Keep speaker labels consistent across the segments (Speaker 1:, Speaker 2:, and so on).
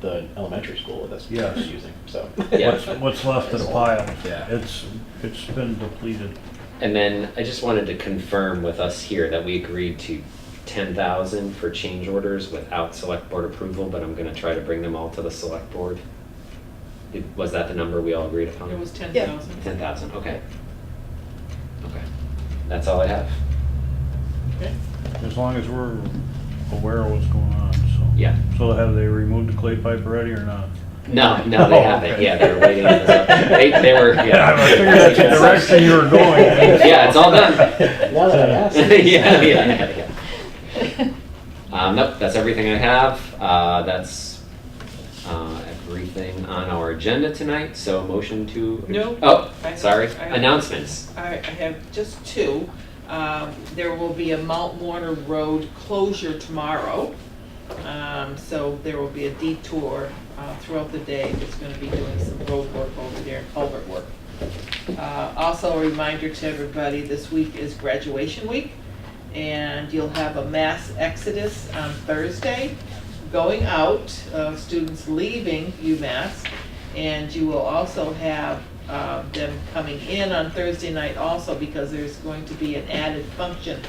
Speaker 1: the elementary school that's
Speaker 2: Yes.
Speaker 1: using, so.
Speaker 3: Yeah.
Speaker 2: What's, what's left of the pile?
Speaker 1: Yeah.
Speaker 2: It's, it's been depleted.
Speaker 3: And then I just wanted to confirm with us here that we agreed to ten thousand for change orders without select board approval, but I'm gonna try to bring them all to the select board. Did- Was that the number we all agreed upon?
Speaker 4: It was ten
Speaker 5: Yeah.
Speaker 4: thousand.
Speaker 3: Ten thousand, okay. Okay, that's all I have.
Speaker 4: Okay.
Speaker 2: As long as we're aware of what's going on, so.
Speaker 3: Yeah.
Speaker 2: So have they removed the clay pipe already or not?
Speaker 3: No, no, they
Speaker 2: Oh,
Speaker 3: haven't,
Speaker 2: okay.
Speaker 3: yeah, they were waiting on this, they, they were, yeah.
Speaker 2: I figured that's the direction you were going.
Speaker 3: Yeah, it's all done.
Speaker 1: Now that I asked.
Speaker 3: Yeah, yeah, yeah, yeah. Um, nope, that's everything I have. Uh, that's uh, everything on our agenda tonight. So motion to.
Speaker 4: No.
Speaker 3: Oh,
Speaker 4: I-
Speaker 3: sorry.
Speaker 4: I-
Speaker 3: Announcements.
Speaker 4: All right, I have just two. Um, There will be a Mount Warner Road closure tomorrow. Um, So there will be a detour uh, throughout the day that's going to be doing some road work over there, culvert work. Uh, Also, a reminder to everybody, this week is graduation week, and you'll have a mass exodus on Thursday going out, uh, students leaving UMass, and you will also have uh, them coming in on Thursday night also because there's going to be an added function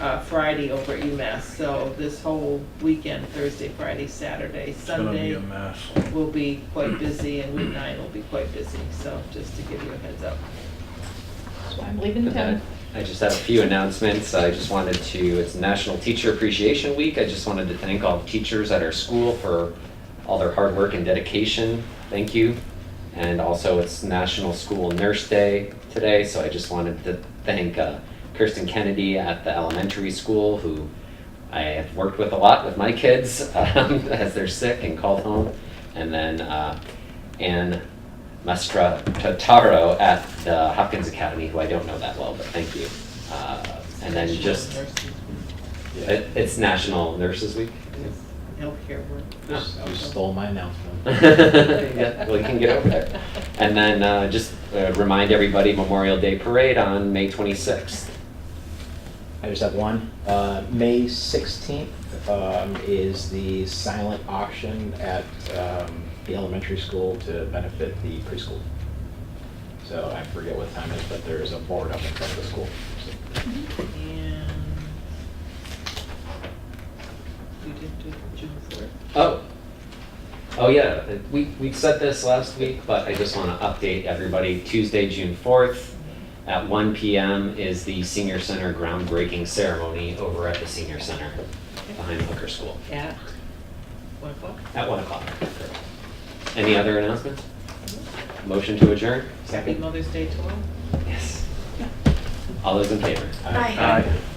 Speaker 4: uh, Friday over at UMass. So this whole weekend, Thursday, Friday, Saturday,
Speaker 2: It's gonna be a
Speaker 4: Sunday,
Speaker 2: mess.
Speaker 4: will be quite busy and week nine will be quite busy. So just to give you a heads up.
Speaker 5: So I'm leaving town.
Speaker 3: uh, I just had a few announcements. I just wanted to, it's National Teacher Appreciation Week. I just wanted to thank all the teachers at our school for all their hard work and dedication. Thank you. And also, it's National School Nurse Day today, so I just wanted to thank uh, Kirsten Kennedy at the elementary school, who I have worked with a lot with my kids um, as they're sick and called home. And then uh, Ann Mastra Tataro at the Hopkins Academy, who I don't know that well, but thank you. Uh, And then just,
Speaker 4: Nurses,
Speaker 3: it- it's National Nurses Week.
Speaker 4: Healthcare work.
Speaker 3: Yeah.
Speaker 1: You stole my announcement.
Speaker 3: yeah, well, you can get over there. And then uh, just uh, remind everybody Memorial Day Parade on May 26th.
Speaker 1: I just have one. Uh, May 16th um, is the silent auction at um, the elementary school to benefit the preschool. So I forget what time it is, but there's a board up in front of the school. So
Speaker 4: And you did do June fourth.
Speaker 3: Oh, oh yeah, we, we said this last week, but I just want to update everybody. Tuesday, June 4th at 1 PM is the senior center groundbreaking ceremony over at the senior center behind Hooker School
Speaker 4: At one o'clock?
Speaker 3: at 1 o'clock. Any other announcements? Motion to adjourn?
Speaker 4: Happy Mother's Day to all.
Speaker 3: Yes. All those in favor?
Speaker 1: I-
Speaker 2: Aye.